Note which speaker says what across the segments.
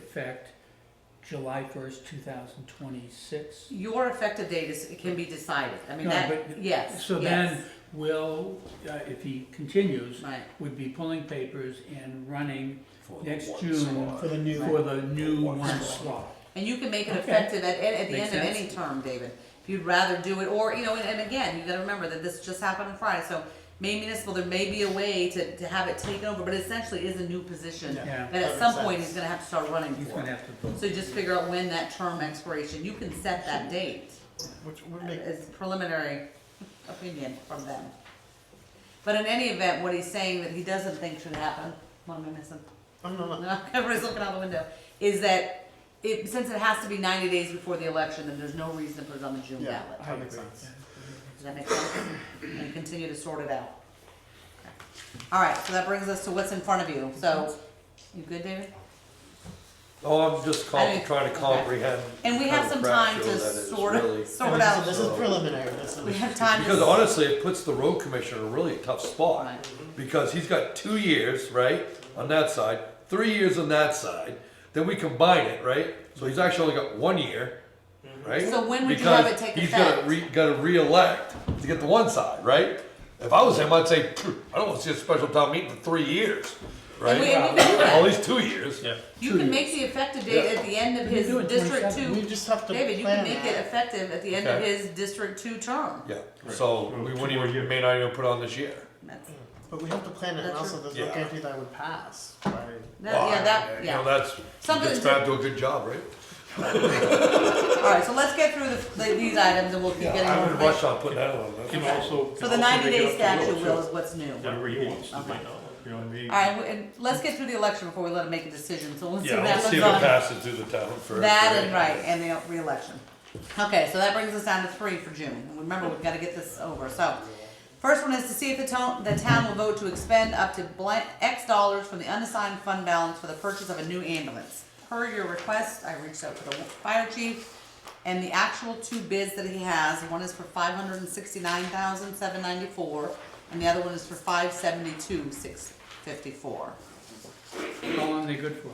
Speaker 1: effect July first, two thousand twenty-six.
Speaker 2: Your effective date is, it can be decided, I mean,
Speaker 1: No,
Speaker 2: that,
Speaker 1: but-
Speaker 2: yes,
Speaker 1: So then,
Speaker 2: yes,
Speaker 1: Will, uh, if he continues,
Speaker 2: right,
Speaker 1: would be pulling papers and running
Speaker 3: for the
Speaker 1: next
Speaker 3: one
Speaker 1: June
Speaker 3: slot.
Speaker 4: For the new-
Speaker 1: for the new
Speaker 3: one
Speaker 1: one
Speaker 3: slot.
Speaker 1: slot.
Speaker 2: and you can make it
Speaker 1: Okay.
Speaker 2: effective at, at the
Speaker 1: Makes
Speaker 2: end of
Speaker 1: sense.
Speaker 2: any term, David, if you'd rather do it, or, you know, and, and again, you gotta remember that this just happened on Friday, so May municipal, there may be a way to, to have it taken over, but it essentially is a new position,
Speaker 4: Yeah.
Speaker 1: Yeah.
Speaker 2: that at
Speaker 4: That
Speaker 2: some
Speaker 4: makes
Speaker 2: point
Speaker 4: sense.
Speaker 2: he's gonna have to start running
Speaker 1: He's gonna
Speaker 2: for.
Speaker 1: have to vote.
Speaker 2: So just figure out when that term expiration, you can set that date.
Speaker 4: Which would make,
Speaker 2: It's preliminary opinion from them. But in any event, what he's saying that he doesn't think should happen, what am I missing?
Speaker 4: oh, no, no,
Speaker 2: No, Everybody's looking out the window, is that it, since it has to be ninety days before the election, then there's no reason to put it on the June
Speaker 4: yeah,
Speaker 2: ballot.
Speaker 4: that makes sense.
Speaker 2: Does that make sense? And continue to sort it out. All right, so that brings us to what's in front of you, so, you good, David?
Speaker 5: Oh, I'm just
Speaker 2: I
Speaker 5: trying
Speaker 2: didn't-
Speaker 5: trying to
Speaker 2: okay.
Speaker 5: comprehend.
Speaker 2: And we have
Speaker 5: how
Speaker 2: some
Speaker 5: crap
Speaker 2: time to
Speaker 5: show that is,
Speaker 2: sort,
Speaker 5: really.
Speaker 4: And
Speaker 2: sort
Speaker 4: this is- This
Speaker 2: out,
Speaker 4: is preliminary, this
Speaker 2: we
Speaker 4: is,
Speaker 2: have time to.
Speaker 5: Because honestly, it puts the road commissioner in a really tough spot,
Speaker 2: Right.
Speaker 5: because he's got two years, right, on that side, three years on that side, then we combine it, right? So he's actually only got one year, right?
Speaker 2: So when would you have it
Speaker 5: Because
Speaker 2: take
Speaker 5: He's gotta
Speaker 2: effect?
Speaker 5: re, gotta re-elect to get the one side, right? If I was him, I'd say, "Phew, I don't wanna see a special town meeting for three years,
Speaker 2: And we,
Speaker 5: right?
Speaker 2: and we can do that.
Speaker 5: At least two years. Yeah.
Speaker 2: You
Speaker 1: Two
Speaker 2: can make the effective date at the end of
Speaker 1: We can
Speaker 2: his
Speaker 1: do it
Speaker 2: District
Speaker 1: 27.
Speaker 4: we
Speaker 2: Two,
Speaker 4: just have to
Speaker 2: David, you can
Speaker 4: plan
Speaker 2: make it
Speaker 4: that.
Speaker 2: effective at the end of
Speaker 5: Okay.
Speaker 2: his District Two term.
Speaker 5: Yeah, so we wouldn't even, may not even put on this year.
Speaker 2: That's-
Speaker 4: But we have to plan it, and
Speaker 2: That's
Speaker 4: also
Speaker 2: true.
Speaker 4: there's no
Speaker 5: Yeah.
Speaker 4: guarantee that would pass, right?
Speaker 2: that- yeah, that,
Speaker 5: You
Speaker 2: yeah.
Speaker 5: know, that's,
Speaker 2: Something
Speaker 5: it's
Speaker 2: to-
Speaker 5: back to a good job, right?
Speaker 2: Alright, so let's get through the, the- these items and we'll keep getting
Speaker 5: I
Speaker 2: more.
Speaker 5: would rush on putting that on.
Speaker 6: Can also.
Speaker 2: So
Speaker 6: can
Speaker 2: the
Speaker 6: also
Speaker 2: ninety
Speaker 6: make it
Speaker 2: day
Speaker 6: up to
Speaker 2: statute will
Speaker 6: Will, too.
Speaker 2: is what's new.
Speaker 6: Whatever he wants to do,
Speaker 2: Okay.
Speaker 6: you know what I mean?
Speaker 2: Alright, w- and let's get through the election before we let him make a decision, so we'll see
Speaker 5: Yeah,
Speaker 2: what
Speaker 5: let's
Speaker 2: happens
Speaker 5: see if it
Speaker 2: on
Speaker 5: passes through the town first.
Speaker 2: that and right, and the reelection. Okay, so that brings us down to three for June, and remember, we've gotta get this over, so. First one is to see if the town, the town will vote to expend up to blank X dollars from the unassigned fund balance for the purchase of a new ambulance. Per your request, I reached out to the fire chief, and the actual two bids that he has, one is for five hundred and sixty-nine thousand, seven ninety-four, and the other one is for five seventy-two, six fifty-four.
Speaker 1: How long they good for?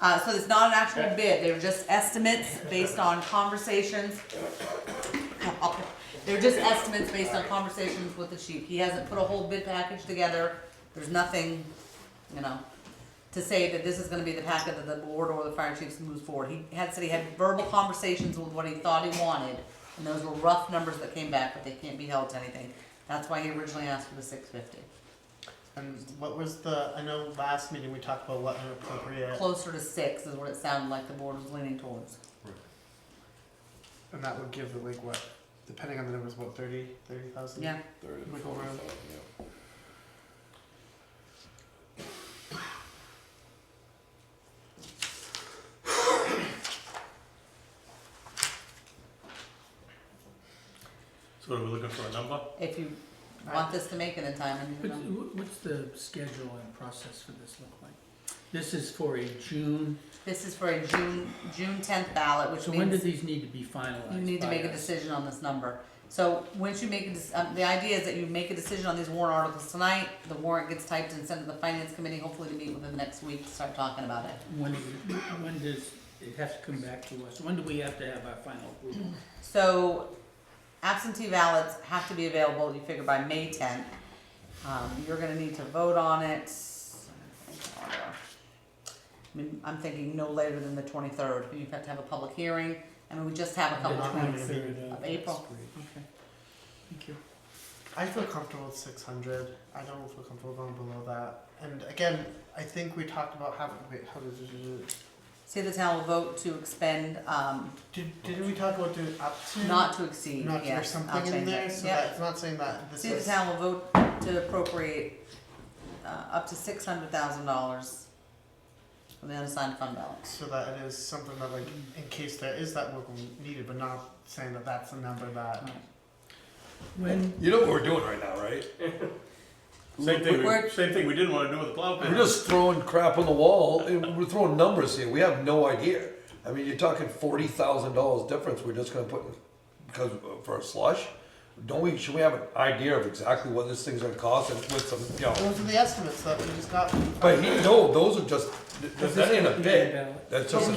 Speaker 2: Uh, so it's not an actual bid, they were just estimates based on conversations. They're just estimates based on conversations with the chief, he hasn't put a whole bid package together, there's nothing, you know, to say that this is gonna be the packet that the board or the fire chiefs moves forward, he had said he had verbal conversations with what he thought he wanted, and those were rough numbers that came back, but they can't be held to anything, that's why he originally asked for the six fifty,
Speaker 4: And what was the, I know last meeting we talked about what an appropriate,
Speaker 2: closer to six is what it sounded like the board was leaning towards.
Speaker 4: and that would give the league what, depending on the numbers, what, thirty, thirty thousand?
Speaker 2: Yeah,
Speaker 4: Wiggle room.
Speaker 6: So are we looking for a number?
Speaker 2: if you want this to make it in time and you
Speaker 1: What's,
Speaker 2: know.
Speaker 1: what's the schedule and process for this look like? This is for a June,
Speaker 2: This is for a June, June tenth ballot, which
Speaker 1: so when do
Speaker 2: means
Speaker 1: these need to be finalized?
Speaker 2: you need to
Speaker 1: by
Speaker 2: make a
Speaker 1: us?
Speaker 2: decision on this number. So, once you make a, dec- um, the idea is that you make a decision on these warrant articles tonight, the warrant gets typed and sent to the finance committee, hopefully to meet within the next week to start talking about it.
Speaker 1: When, do we- when does, it has to come back to us, when do we have to have our final approval?
Speaker 2: So absentee ballots have to be available, you figure by May tenth. Um, you're gonna need to vote on it. I mean, I'm thinking no later than the twenty-third, you have to have a public hearing, I mean, we just have a
Speaker 1: The
Speaker 2: couple of weeks.
Speaker 1: 23rd
Speaker 2: of April.
Speaker 1: Okay, thank you.
Speaker 4: I feel comfortable with six hundred, I don't feel comfortable going below that, and again, I think we talked about how, wait, how did, did, did,
Speaker 2: Say the town will vote to expend, um,
Speaker 4: did, didn't we talk about doing up to?
Speaker 2: not to exceed,
Speaker 4: Not, there's
Speaker 2: yes, I'll
Speaker 4: something in
Speaker 2: change
Speaker 4: there,
Speaker 2: it,
Speaker 4: so
Speaker 2: yep.
Speaker 4: that's not saying that this
Speaker 2: See the
Speaker 4: is.
Speaker 2: town will vote to appropriate, uh, up to six hundred thousand dollars from the unassigned fund balance.
Speaker 4: So that it is something that like, in case there is that work needed, but not saying that that's the number that.
Speaker 2: Mm.
Speaker 1: When,
Speaker 5: You know what we're doing right now, right?
Speaker 6: Same thing,
Speaker 2: We're-
Speaker 6: we- same thing we didn't wanna do with the plow
Speaker 5: We're
Speaker 6: pit.
Speaker 5: just throwing crap on the wall, and we're throwing numbers here, we have no idea. I mean, you're talking forty thousand dollars difference, we're just gonna put, in- because, uh, for a slush? Don't we, should we have an idea of exactly what this thing's gonna cost and with some, you know?
Speaker 4: Those are the estimates that we just got.
Speaker 5: But he, no, those are just,
Speaker 1: This
Speaker 5: that
Speaker 1: is
Speaker 5: ain't a
Speaker 1: completed
Speaker 5: bid,
Speaker 1: ballot.
Speaker 5: that's just an